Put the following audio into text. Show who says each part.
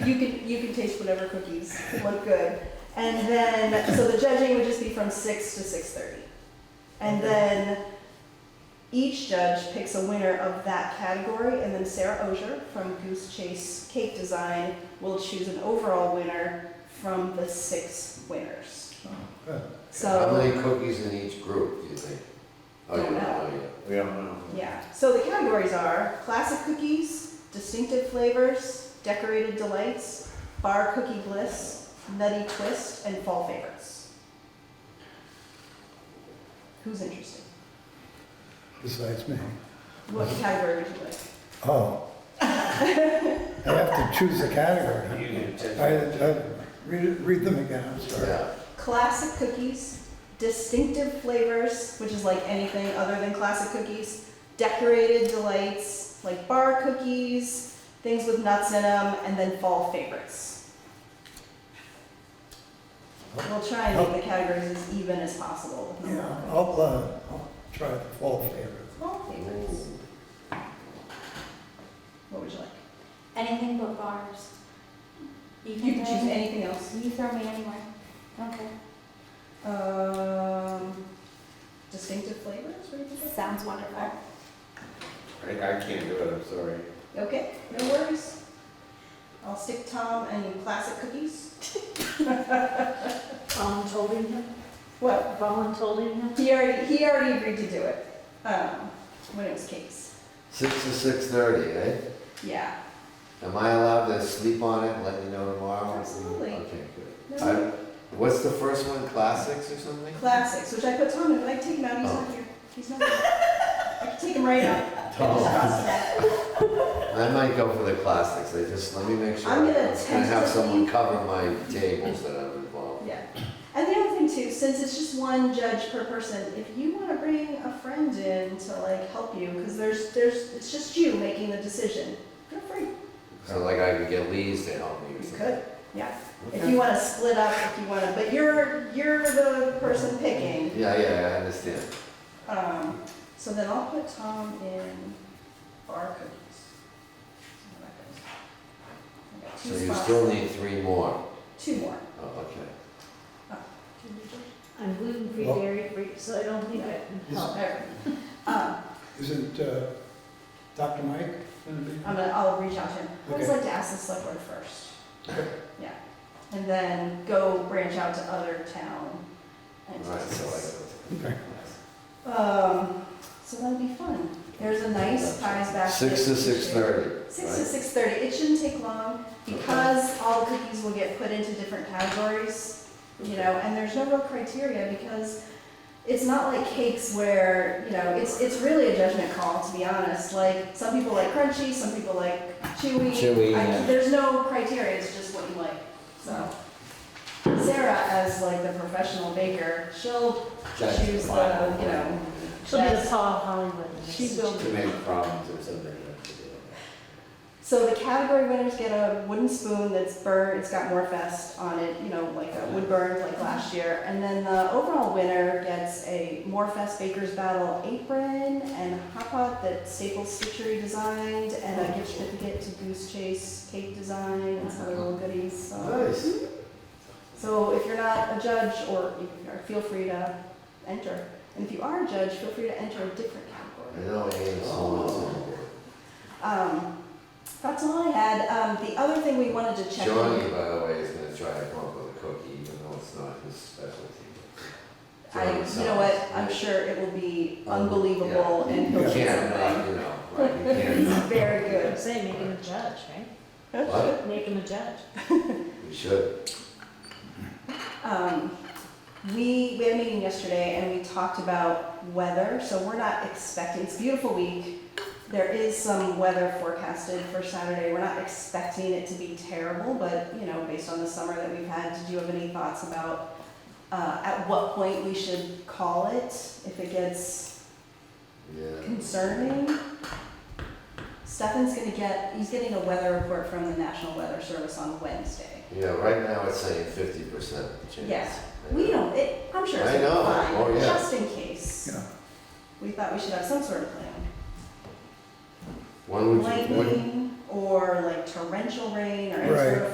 Speaker 1: You can you can taste whatever cookies look good, and then so the judging would just be from six to six thirty, and
Speaker 2: Okay.
Speaker 1: then each judge picks a winner of that category, and then Sarah Osier from Goose Chase Cake Design will choose an overall winner from the six winners.
Speaker 2: Good.
Speaker 3: How
Speaker 1: So
Speaker 3: many cookies in each group, do you think? Oh, you
Speaker 1: Don't know.
Speaker 3: know, yeah.
Speaker 2: We don't know.
Speaker 1: yeah, so the categories are classic cookies, distinctive flavors, decorated delights, bar cookie bliss, nutty twist, and fall favorites. Who's interested?
Speaker 4: besides me.
Speaker 1: What category would you like?
Speaker 4: Oh. I have to choose a category. I, I, read, it- read them again, I'm sorry.
Speaker 3: Yeah,
Speaker 1: classic cookies, distinctive flavors, which is like anything other than classic cookies, decorated delights, like bar cookies, things with nuts in them, and then fall favorites. We'll try and make the categories as even as possible. with
Speaker 4: Yeah,
Speaker 1: number.
Speaker 4: I'll, uh, I'll try the fall favorite.
Speaker 1: Fall favorites. What would you like?
Speaker 5: Anything but bars. You
Speaker 1: You can
Speaker 5: throw
Speaker 1: choose
Speaker 5: me-
Speaker 1: anything else.
Speaker 5: You throw me anywhere. Okay.
Speaker 1: Um, distinctive flavors, what do you think?
Speaker 5: Sounds wonderful.
Speaker 2: I, I can't do it, I'm sorry.
Speaker 1: Okay, no worries. I'll stick Tom and classic cookies.
Speaker 6: Voluntolding him,
Speaker 1: Well,
Speaker 6: voluntolding him.
Speaker 1: he already, he already agreed to do it, um, when it was cakes.
Speaker 3: six to six thirty, eh?
Speaker 1: Yeah,
Speaker 3: Am I allowed to sleep on it, let you know tomorrow?
Speaker 1: Absolutely.
Speaker 3: Okay, good.
Speaker 1: No.
Speaker 3: I- What's the first one, classics or something?
Speaker 1: classics, which I put Tom in, but I can take him out, he's not here. He's not here. I can take him right out. I just crossed it out.
Speaker 3: I might go for the classics, I just, let me make sure.
Speaker 1: I'm gonna
Speaker 3: have someone
Speaker 1: tentatively-
Speaker 3: cover my tables that I'm involved.
Speaker 1: Yeah. And the other thing too, since it's just one judge per person, if you wanna bring a friend in to like help you, cause there's, there's, it's just you making the decision, feel free.
Speaker 3: So like I could get Lee's to help me or
Speaker 1: You
Speaker 3: something.
Speaker 1: could, yeah. If
Speaker 3: Okay.
Speaker 1: you want to split up, if you want to, but you're, you're the person picking.
Speaker 3: Yeah, yeah, I understand.
Speaker 1: Um, so then I'll put Tom in bar cookies.
Speaker 3: So
Speaker 1: I got two
Speaker 3: you
Speaker 1: spots.
Speaker 3: still need three more.
Speaker 1: Two more.
Speaker 3: Oh, okay.
Speaker 6: I'm gluten-free,
Speaker 4: Well-
Speaker 6: dairy-free, so I don't think I can help.
Speaker 1: There. Um,
Speaker 4: Isn't, uh, Dr. Mike gonna be?
Speaker 1: I'm gonna, I'll reach out to him. I always
Speaker 4: Okay.
Speaker 1: like to ask the select board first. Yeah. And then go branch out to other town
Speaker 3: All right, so
Speaker 1: entities.
Speaker 3: I.
Speaker 4: Okay.
Speaker 1: Um, so that'll be fun. There's a nice pies basket.
Speaker 3: Six to six thirty,
Speaker 1: Six to
Speaker 3: right?
Speaker 1: six thirty, it shouldn't take long, because all the cookies will get put into different categories, you know, and there's no real criteria, because it's not like cakes where, you know, it's, it's really a judgment call, to be honest, like, some people like crunchy, some people like chewy.
Speaker 3: Chewy,
Speaker 1: I-
Speaker 3: yeah.
Speaker 1: There's no criteria, it's just what you like, so. Sarah, as like the professional baker, she'll
Speaker 3: Judge
Speaker 1: choose the,
Speaker 3: final.
Speaker 1: you know,
Speaker 6: She'll be the
Speaker 1: That's-
Speaker 6: Paul Hollywood. in this
Speaker 1: she will
Speaker 2: To make problems or something. that's to do it.
Speaker 1: So the category winners get a wooden spoon that's burned, it's got Morfest on it, you know, like a wood burned like last year. And then the overall winner gets a Morfest Baker's Battle apron and a hot pot that Staples Stitchery designed and a gift certificate to Goose Chase Cake Design and some other little goodies, so.
Speaker 3: Nice.
Speaker 1: So if you're not a judge or if you are, feel free to enter. And if you are a judge, feel free to enter a different category.
Speaker 3: I know, I ain't so much.
Speaker 1: Um, that's all I had. Um, the other thing we wanted to check.
Speaker 3: Johnny, by the way, is gonna try to come up with a cookie, even though it's not his specialty.
Speaker 1: I, you know what, I'm sure it will be unbelievable and
Speaker 3: You
Speaker 1: he'll do
Speaker 3: can't, not,
Speaker 1: something.
Speaker 3: you know, right, you
Speaker 1: He's
Speaker 3: can't.
Speaker 1: very
Speaker 6: I'm
Speaker 1: good.
Speaker 6: saying, make him a judge, right?
Speaker 3: What?
Speaker 6: Make him a judge.
Speaker 3: We should.
Speaker 1: Um, we, we had a meeting yesterday and we talked about weather, so we're not expecting, it's a beautiful week. There is some weather forecasted for Saturday. We're not expecting it to be terrible, but, you know, based on the summer that we've had, did you have any thoughts about, uh, at what point we should call it if it gets
Speaker 3: Yeah.
Speaker 1: concerning. Stefan's gonna get, he's getting a weather report from the National Weather Service on Wednesday.
Speaker 3: Yeah, right now it's saying fifty percent chance.
Speaker 1: Yeah. We don't, it, I'm sure it's
Speaker 3: I know.
Speaker 1: gonna
Speaker 3: Oh,
Speaker 1: be fine,
Speaker 3: yeah.
Speaker 1: just in case.
Speaker 4: Yeah.
Speaker 1: We thought we should have some sort of plan.
Speaker 3: When would you, when,
Speaker 1: Lightning or like torrential rain or any
Speaker 4: Right.
Speaker 1: sort of